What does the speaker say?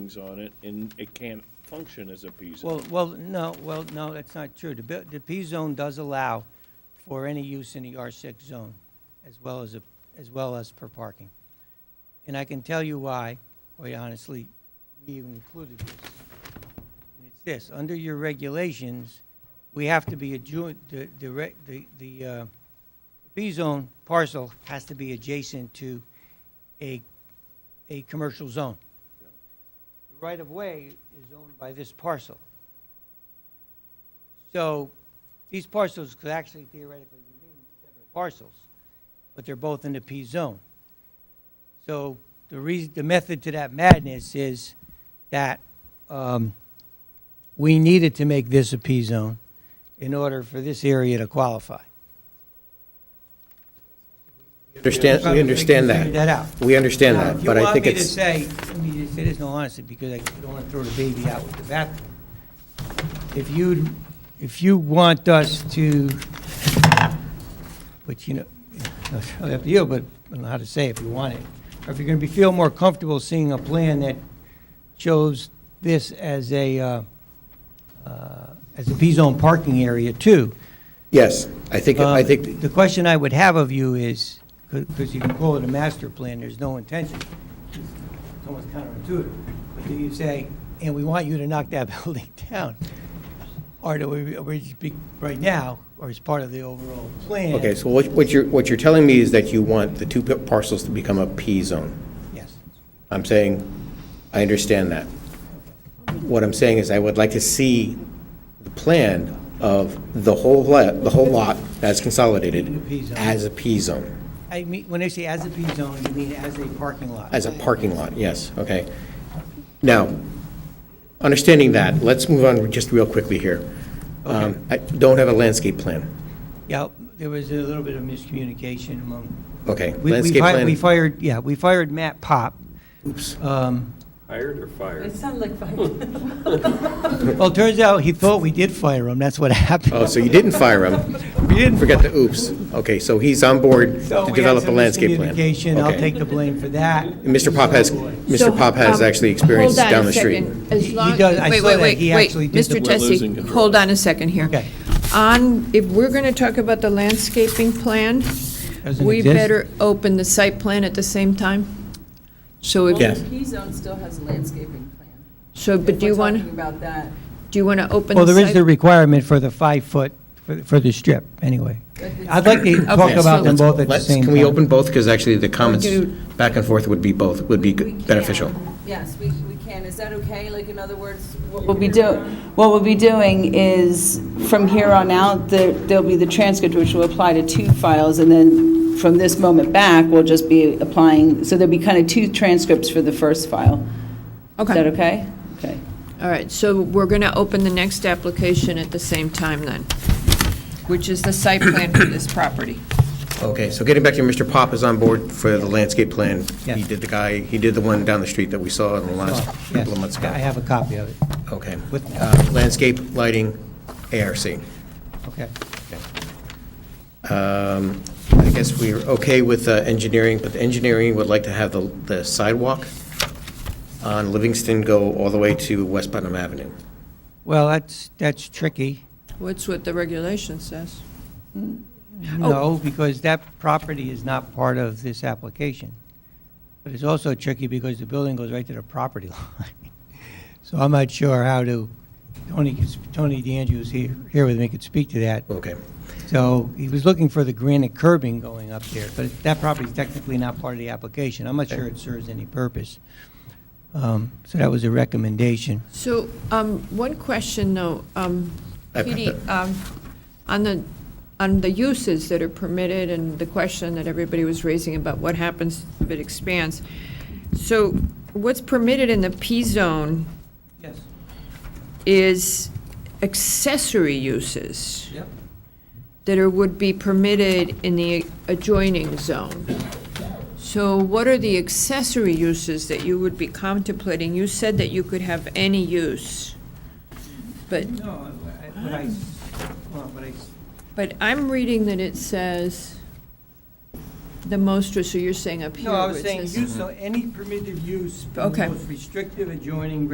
things on it, and it can't function as a P zone. Well, well, no, well, no, that's not true. The, bu- the P zone does allow for any use in the R six zone, as well as a, as well as per parking. And I can tell you why, quite honestly, we even included this. And it's this, under your regulations, we have to be adjoint, the, the, re- the, the, uh, P zone parcel has to be adjacent to a, a commercial zone. The right-of-way is owned by this parcel. So these parcels could actually theoretically remain separate parcels, but they're both in the P zone. So the reason, the method to that madness is that um, we needed to make this a P zone in order for this area to qualify. Understand, we understand Figure that. that out. We understand Now, that, but I think If it's, you want me to say, let me just say this, no, honestly, because I don't want to throw the baby out with the bathwater. If you, if you want us to, which, you know, it's really up to you, but I don't know how to say if you want it. Or if you're going to be, feel more comfortable seeing a plan that shows this as a, uh, uh, as a P-zone parking area too. yes, I think, I Um, think, The question I would have of you is, because you can call it a master plan, there's no intention. It's almost counterintuitive. But do you say, and we want you to knock that building down? Or do we, we just be, right now, or as part of the overall plan? okay, so what what you're, what you're telling me is that you want the two parcels to become a P zone. Yes. I'm saying, I understand that. What I'm saying is I would like to see the plan of the whole, le- the whole lot as consolidated P zone. as a P zone, I mean, when they say as a P zone, you mean as a parking lot? as a parking lot, yes, okay. Now, understanding that, let's move on just real quickly here. Um, I don't have a landscape plan. Yeah, there was a little bit of miscommunication among. Okay, We- we landscape fi- plan. We fired, yeah, we fired Matt Pop. Oops. Um, Hired or fired? It sounded like fun. Well, it turns out he thought we did fire him, that's what happened. Oh, so you didn't fire him? We didn't Forget the oops. Okay, so he's on board So to we had develop a some landscape plan. miscommunication. I'll Okay. take the blame for that. And Mr. Pop has, So, Mr. Pop has um, actually experience hold on down a the street. second. As He- he long- does- I wait, saw wait, that. wait, He wait. actually did the- Mr. We're losing Tessie, control. hold on a second here. Okay. On, if we're going to talk about the landscaping plan, Doesn't we exist. better open the site plan at the same time? So, if- Yes. Well, the P-zone still has a landscaping plan. so, but do you want, If we're talking about that, do you want to open Well, the there is site? the requirement for the five-foot, for the- for the strip, anyway. I'd like to talk Okay, about so- them both at the Let's- same time. Can we open both? Because actually the comments do- back and forth would be both, would be we good- can. beneficial. Yes, we, we can. Is that okay? Like, in other words, what What we're we'll be do, doing? what we'll be doing is, from here on out, there- there'll be the transcript, which will apply to two files, and then from this moment back, we'll just be applying, so there'll be kind of two transcripts for the first file. Is that Okay, okay? Okay. all right, so we're going to open the next application at the same time then, which is the site plan for this property. Okay, so getting back to Mr. Pop is on board for the landscape plan. Yes. He did the guy, he did the one down the street that we saw in the last Oh, Yes, couple of months ago. I have a copy of it, Okay. With- Uh, Landscape, lighting, ARC. okay. Um, I guess we're okay with uh, engineering, but the engineering would like to have the the sidewalk on Livingston go all the way to West Putnam Avenue. Well, that's, that's tricky. What's what the regulation says? Oh. No, because that property is not part of this application. But it's also tricky because the building goes right to the property line. So I'm not sure how to, Tony, can sp- Tony DeAndrew is here, here with me, could speak to that. Okay. So he was looking for the granite curbing going up there, but that property's technically not part of the application. I'm not sure it serves any purpose. Um, So that was a recommendation. So, um, one question, though. um, I- Petey, um, on the, on the uses that are permitted and the question that everybody was raising about what happens if it expands. So what's permitted in the P-zone Yes, is accessory uses yep. that are, would be permitted in the adjoining zone. So what are the accessory uses that you would be contemplating? You said that you could have any use, but No, but I, well, but I, But I'm reading that it says the most, so you're saying up here? No, I was where it saying, says- use, so any permitted use from the Okay. most restrictive adjoining